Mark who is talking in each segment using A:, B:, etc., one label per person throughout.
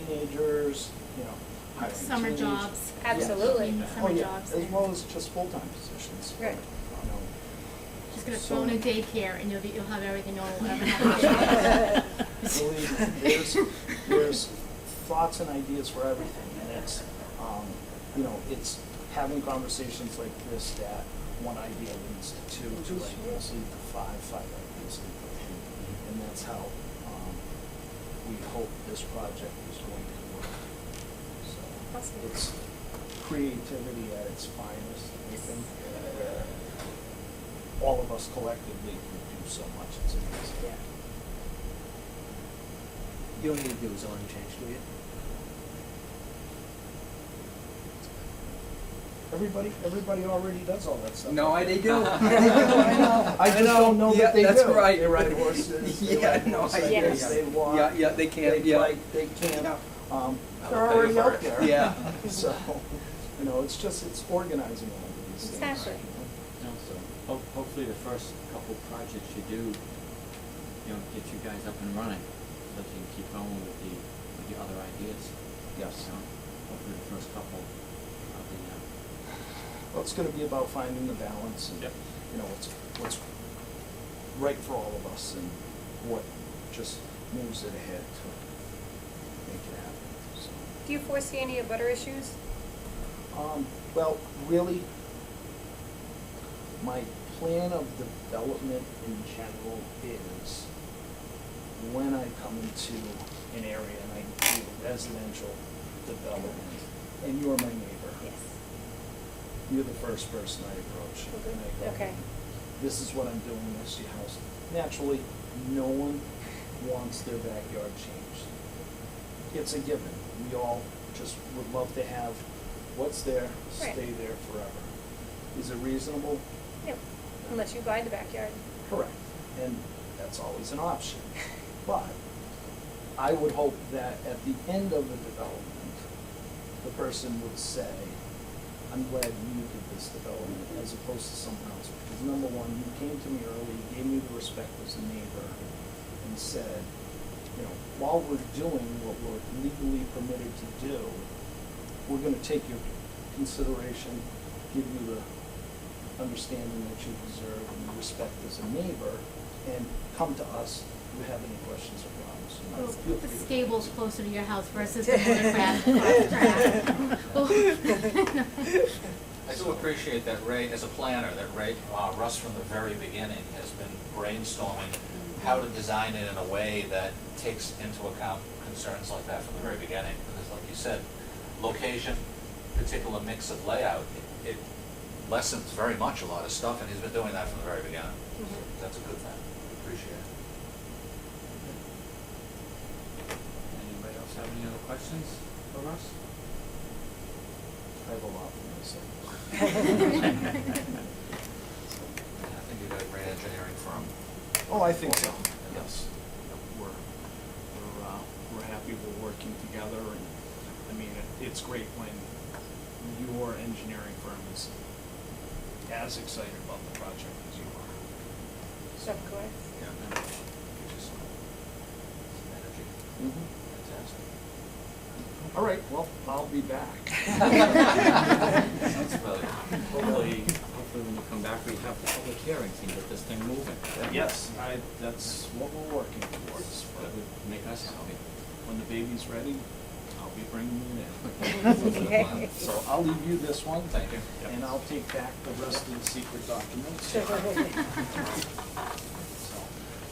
A: teenagers, you know, hiring
B: Summer
A: teenagers.
B: jobs.
A: Yes.
C: Absolutely.
A: Oh,
B: Summer
A: yeah,
B: jobs.
A: As well as just full-time positions.
C: Right.
A: You know,
B: She's gonna
A: So-
B: phone a daycare and you'll be, you'll have everything, no one will ever have.
A: Believe me, there's, there's thoughts and ideas for everything, and it's, um, you know, it's having conversations like this that one idea leads to two, two ideas lead to five, five ideas lead to three. And that's how, um, we hope this project is going to work. So,
C: Awesome.
A: it's creativity at its finest, I think, where all of us collectively can do so much, it's amazing.
D: You don't need to do a zoning change, do you?
A: Everybody, everybody already does all that stuff.
D: No, I, they do.
A: I know. I just don't know
D: Yeah,
A: that they do.
D: That's right.
A: They ride horses. they
D: Yeah,
A: ride
D: no, I
A: motorcycles,
C: hear ya.
A: They walk.
D: Yeah, yeah, they can,
A: They
D: yeah.
A: bike, they camp. Um,
E: I'm
A: they're
E: a big
A: already out
E: bird.
A: there.
D: Yeah.
A: So, you know, it's just, it's organizing all of these things.
C: Exactly.
E: No, so ho- hopefully the first couple projects you do, you know, get you guys up and running, so that you can keep going with the, with the other ideas.
A: Yes.
E: So hopefully the first couple, I'll be, uh,
A: Well, it's gonna be about finding the balance and,
E: Yep.
A: you know, what's, what's right for all of us and what just moves it ahead to make it happen, so.
C: Do you foresee any butter issues?
A: Um, well, really, my plan of development in general is when I come into an area and I do residential development, and you're my neighbor. You're the first person I approach. and I go,
C: Okay.
A: This is what I'm doing, this is your house. Naturally, no one wants their backyard changed. It's a given. We all just would love to have what's there,
C: Right.
A: stay there forever. Is it reasonable?
C: No, unless you buy the backyard.
A: Correct, and that's always an option. But I would hope that at the end of the development, the person would say, I'm glad you did this development as opposed to someone else. Because number one, you came to me early, you gave me the respect as a neighbor, and said, you know, while we're doing what we're legally permitted to do, we're gonna take your consideration, give you the understanding that you deserve and respect as a neighbor, and come to us if you have any questions or problems. you know,
B: We'll
A: feel
B: put the
A: free to-
B: stables closer to your house versus the watercraft across track.
F: I do appreciate that Ray, as a planner, that Ray, uh, Russ from the very beginning has been brainstorming how to design it in a way that takes into account concerns like that from the very beginning. Because like you said, location, particular mix of layout, it- it lessens very much a lot of stuff, and he's been doing that from the very beginning. So
C: Mhm.
F: That's a good thing. Appreciate it.
E: anybody else have any other questions for us?
A: I have a lot for myself.
F: I think you got a great engineering firm.
A: Oh, I think so, yes. We're, we're, uh, we're happy we're working together, and, I mean, it- it's great when your engineering firm is as excited about the project as you are.
C: Of course.
F: Yeah. and it Gives you some some energy.
A: Mm-hmm.
F: Fantastic.
A: All right, well, I'll be back.
E: Sounds familiar. Hopefully, hopefully when you come back, we have the public hearings and get this thing moving.
A: Yes, I, that's what we're working towards,
E: That
A: but
E: would make us happy.
A: when the baby's ready, I'll be bringing it
C: Okay.
A: in. So I'll leave you this one,
F: Thank you.
A: and I'll take back the rest of the secret documents.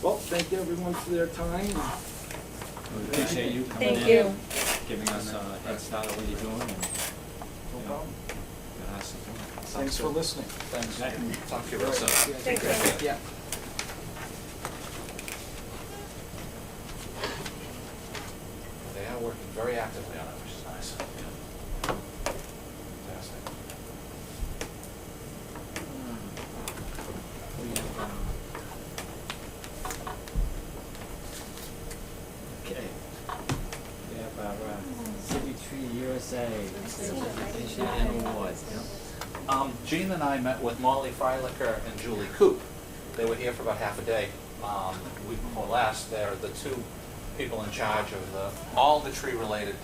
A: Well, thank you everyone for their time.
E: We appreciate you coming in.
C: Thank you.
E: Giving us a head start on what you're doing and, you know, got us to do it.
A: Thanks for listening.
E: Thanks.
F: Talk to you real soon.
C: Thank you.
D: Yeah.
F: They are working very actively on it, which is nice. Yeah. Fantastic.
E: We have, um, Okay. We have our uh, City Tree USA presentation and awards,
F: Um, Gene and I met with Molly Freilicher and Julie Coop. They were here for about half a day. Um, the week before last, they're the two people in charge of the, all the tree-related